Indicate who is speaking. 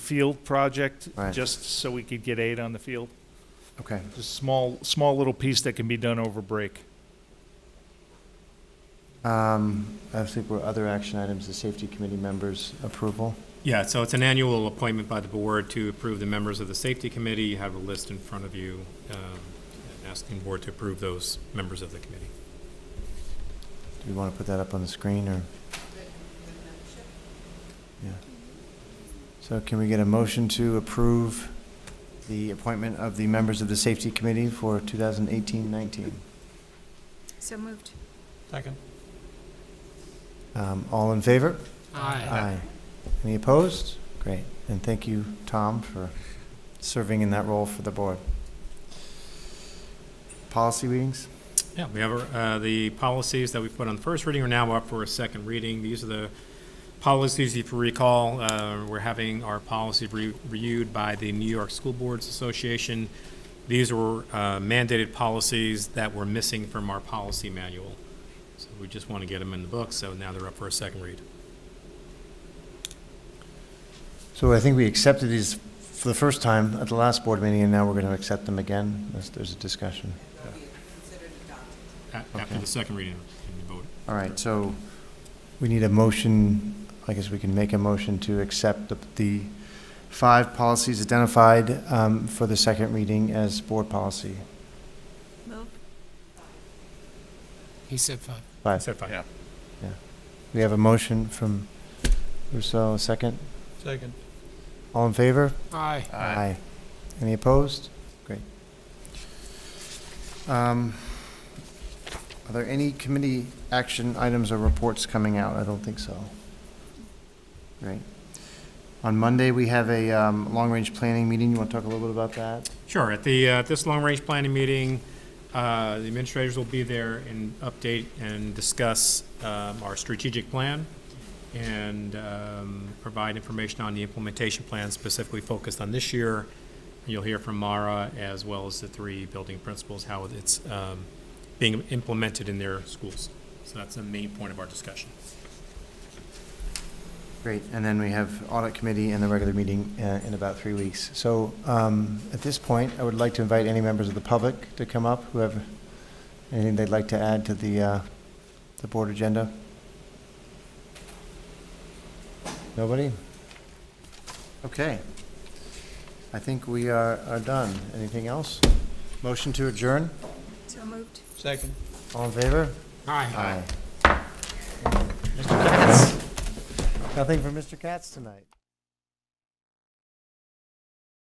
Speaker 1: field project,
Speaker 2: Right.
Speaker 1: just so we could get aid on the field.
Speaker 2: Okay.
Speaker 1: Just small, small little piece that can be done over break.
Speaker 2: Um, I think we're other action items, the safety committee members' approval.
Speaker 3: Yeah, so it's an annual appointment by the board to approve the members of the safety committee. You have a list in front of you, um, and asking the board to approve those members of the committee.
Speaker 2: Do we want to put that up on the screen or? Yeah. So can we get a motion to approve the appointment of the members of the safety committee for 2018-19?
Speaker 4: So moved.
Speaker 5: Second.
Speaker 2: Um, all in favor?
Speaker 5: Aye.
Speaker 2: Aye. Any opposed? Great. And thank you, Tom, for serving in that role for the board. Policy meetings?
Speaker 3: Yeah, we have uh, the policies that we put on the first reading are now up for a second reading. These are the policies, if you recall, uh, we're having our policy re- reviewed by the New York School Boards Association. These were uh, mandated policies that were missing from our policy manual. So we just want to get them in the book, so now they're up for a second read.
Speaker 2: So I think we accepted these for the first time at the last board meeting, and now we're going to accept them again. There's, there's a discussion.
Speaker 3: A- After
Speaker 2: Okay.
Speaker 3: the second reading, can you vote?
Speaker 2: All right, so we need a motion, I guess we can make a motion to accept the, the five policies identified um, for the second reading as board policy.
Speaker 4: Move.
Speaker 5: He said five.
Speaker 2: Aye.
Speaker 3: Set five.
Speaker 2: We have a motion from Rousseau, a second.
Speaker 5: Second.
Speaker 2: All in favor?
Speaker 5: Aye.
Speaker 2: Aye. Any opposed? Great. Um, Are there any committee action items or reports coming out? I don't think so. Great. On Monday, we have a um, long-range planning meeting. You want to talk a little bit about that?
Speaker 3: Sure, at the, uh, this long-range planning meeting, uh, the administrators will be there and update and discuss um, our strategic plan and um, provide information on the implementation plan specifically focused on this year. You'll hear from Mara as well as the three building principals, how it's um, being implemented in their schools. So that's the main point of our discussion.
Speaker 2: Great, and then we have audit committee and the regular meeting uh, in about three weeks. So um, at this point, I would like to invite any members of the public to come up who have anything they'd like to add to the, uh, the board agenda. Nobody? Okay. I think we are, are done. Anything else? Motion to adjourn?
Speaker 4: So moved.
Speaker 5: Second.
Speaker 2: All in favor?
Speaker 5: Aye.
Speaker 2: Aye. Mr. Katz? Nothing for Mr. Katz tonight.